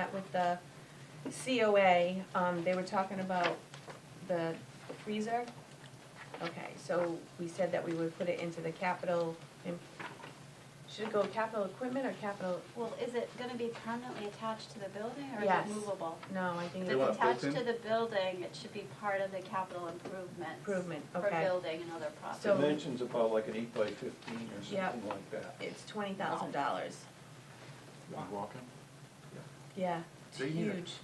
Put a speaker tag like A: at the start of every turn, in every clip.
A: Met with the COA, um, they were talking about the freezer. Okay, so we said that we would put it into the capital, im- should it go capital equipment or capital,
B: Well, is it gonna be permanently attached to the building or is
A: Yes.
B: it movable?
A: no, I think
B: If
A: it's
C: They want
B: it's
C: it built
B: attached
C: in?
B: to the building, it should be part of the capital improvements.
A: improvement,
B: For
A: okay?
B: building and other
A: So-
B: projects.
C: Dimensions about like an eight by fifteen or
A: Yep.
C: something like that.
A: It's twenty thousand dollars,
D: Walking?
A: yeah, it's
D: They need it.
A: huge.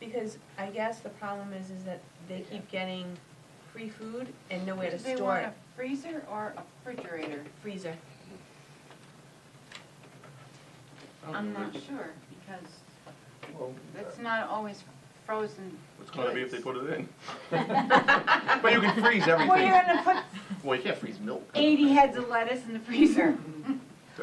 A: Because I guess the problem is, is that they keep getting free food and nowhere to
E: They
A: store
E: want
A: it,
E: a freezer or a refrigerator?
A: freezer. Oh,
E: I'm not
D: What's
E: sure, because
C: Well,
E: it's not always frozen.
D: it's gonna be if they put it in?
E: Well,
D: But you can freeze everything.
E: you're gonna put
D: Well, you can't freeze milk.
E: eighty heads of lettuce in the freezer.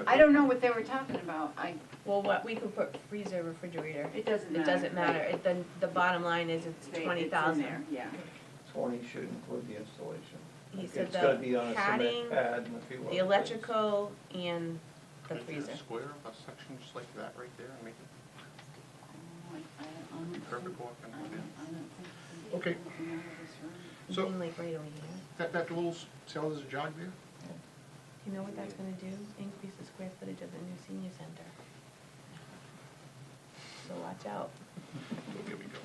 E: I don't know what they were talking about, I,
A: Well, what, we could put freezer, refrigerator.
E: it doesn't matter.
A: It doesn't matter, it, the, the bottom line is it's
E: They- it's in
A: twenty thousand.
E: there, Yeah.
C: twenty should include the installation.
A: He
C: Like,
A: said
C: It's gotta
A: the
C: be on a
A: padding,
C: cement pad and a few other
A: the
C: things.
A: electrical, and the
D: Make it a
A: freezer.
D: Square, a section just like that right there and make it
E: I don't- I don't-
A: Mm-hmm.
D: perfect walk and
E: I
D: one
E: don't-
D: in.
E: I don't think we
D: Okay.
E: can go this route.
D: So-
A: Even like right over here.
D: That, that little s- seller's jog there?
A: You know what that's gonna do? Increase the square footage of the new senior center. So watch out.
D: Oh, There we go.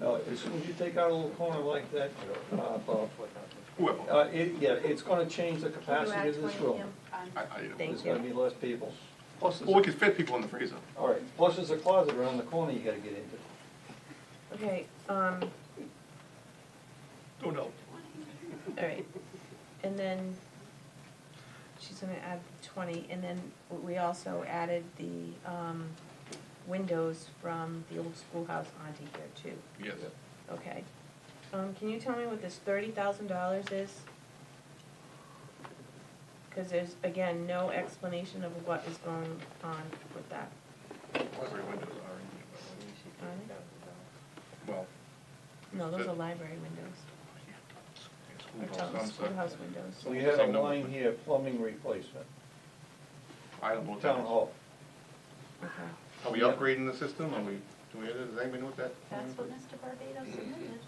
C: No, as soon as you take out a little corner like that, uh, Bob,
D: Whoever,
C: uh, it, yeah, it's gonna change the
A: Can you
C: capacity
A: add
C: of this
A: 20
C: room.
A: him?
D: I, I don't.
A: Thank
C: There's gonna
A: you.
C: be less people. Plus,
D: Well, we
C: there's,
D: could fit people in the freezer.
C: a- all right, plus there's a closet around the corner you gotta get into.
A: Okay, um,
D: Oh, no.
A: all right. And then she's gonna add twenty, and then we also added the, um, windows from the old schoolhouse onto here too.
D: Yes.
A: Okay. Um, can you tell me what this thirty thousand dollars is? Cause there's, again, no explanation of what is going on with that.
D: Library windows are in here, but, I mean, Well.
A: No, those
D: The-
A: are library windows,
D: Oh, yeah,
A: or
D: schoolhouse, I'm
A: tell-
D: sorry.
A: schoolhouse windows.
C: So we had a
D: Same number.
C: line here, plumbing replacement,
D: I don't know what that
C: town
D: is.
C: hall.
A: Okay.
D: Are we upgrading the system? Are we, do we, does anybody know what that?
B: That's what Mr. Barbado submitted.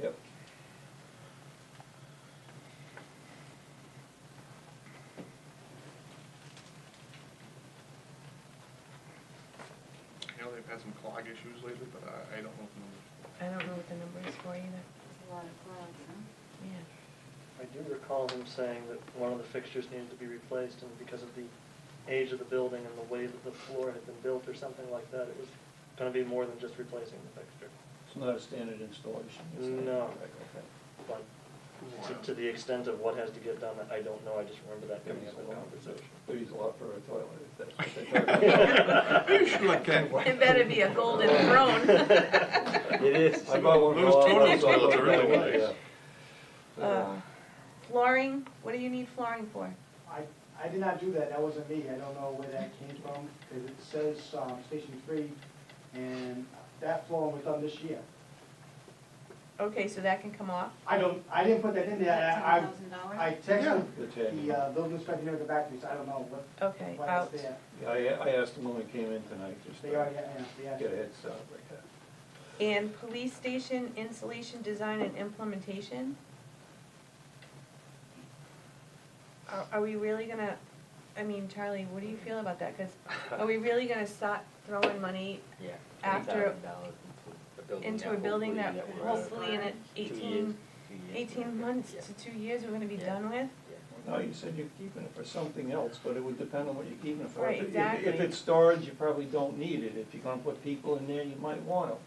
C: Yep.
D: You know, they've had some clog issues lately, but I, I don't know. if numbers-
A: I don't know what the number is for either,
E: It's a lot of clouds, huh?
A: yeah.
F: I do recall him saying that one of the fixtures needed to be replaced, and because of the age of the building and the way that the floor had been built or something like that, it was gonna be more than just replacing the fixture.
C: It's not a standard installation. is it?
F: No.
C: Okay.
F: But to- to the extent of what has to get done, I don't know, I just remember that coming up in conversation.
C: Thirty's a lot for a toilet, if that's what they talk about.
D: You should like that.
A: It better be a golden throne.
C: It is. I bought one for
D: Those
C: all
D: toilet
C: of us.
D: toilets are really
C: Yeah.
D: nice.
A: Uh, Flooring, what do you need flooring for?
G: I, I did not do that, that wasn't me, I don't know where that came from, because it says, um, Station Three, and that flooring was done this year.
A: Okay, so that can come off,
G: I don't, I didn't put that in there, I, I-
E: $10,000?
G: I texted
C: The
G: the,
C: tan.
G: uh, building inspector here at the back, because I don't know what,
A: okay,
G: what
A: out.
G: is there.
C: Yeah, I, I asked them when we came in tonight, just to
G: They already, yeah, they
C: get a
G: actually,
C: head start like uh, that.
A: And police station installation, design, and implementation? Are, are we really gonna, I mean, Charlie, what do you feel about that? Cause are we really gonna start throwing money
H: Yeah.
A: after,
H: $20,000 into a building
A: into
H: that
A: a building that
H: hopefully we're-
A: hopefully in
H: Two
A: eighteen,
H: years, two years,
A: eighteen months
H: yeah.
A: to two years, we're gonna be
H: Yeah.
A: done with?
C: No, you said you're keeping it for something else, but it would depend on what you're keeping it for.
A: Right,
C: If- if- If
A: exactly.
C: it's storage, you probably don't need it. If you're gonna put people in there, you might want them.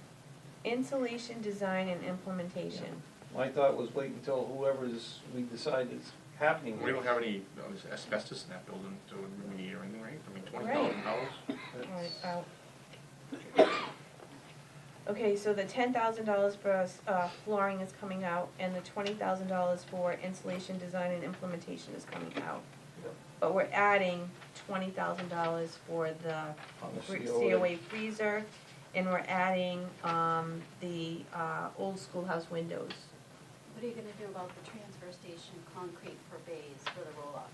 A: Insulation, design, and implementation.
C: My thought was wait until whoever's, we decide is happening.
D: We don't have any uh, asbestos in that building to remediate or anything, right? I mean, twenty thousand dollars?
A: Alright, out. oh. Okay, so the ten thousand dollars for us, uh, flooring is coming out, and the twenty thousand dollars for insulation, design, and implementation is coming out.
C: Yep.
A: But we're adding twenty thousand dollars for the
C: On the
A: fr-
C: COA.
A: COA freezer, and we're adding, um, the, uh, old schoolhouse windows.
B: What are you gonna do about the transfer station concrete for bays for the roll-off